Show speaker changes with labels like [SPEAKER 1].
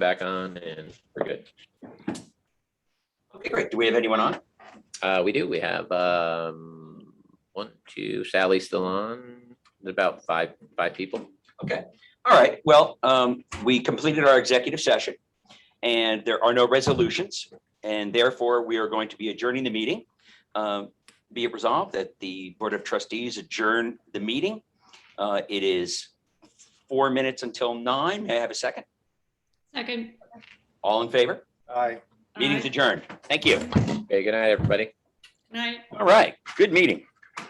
[SPEAKER 1] back on and we're good.
[SPEAKER 2] Okay, great. Do we have anyone on?
[SPEAKER 1] Uh, we do, we have, um, one, two, Sally's still on, about five, five people.
[SPEAKER 2] All right, well, um, we completed our executive session and there are no resolutions. And therefore, we are going to be adjourning the meeting. Um, Be it resolved that the Board of Trustees adjourn the meeting. Uh, It is four minutes until nine. May I have a second?
[SPEAKER 3] Second.
[SPEAKER 2] All in favor?
[SPEAKER 4] Aye.
[SPEAKER 2] Meeting's adjourned. Thank you.
[SPEAKER 1] Okay, good night, everybody.
[SPEAKER 3] Night.
[SPEAKER 2] All right, good meeting.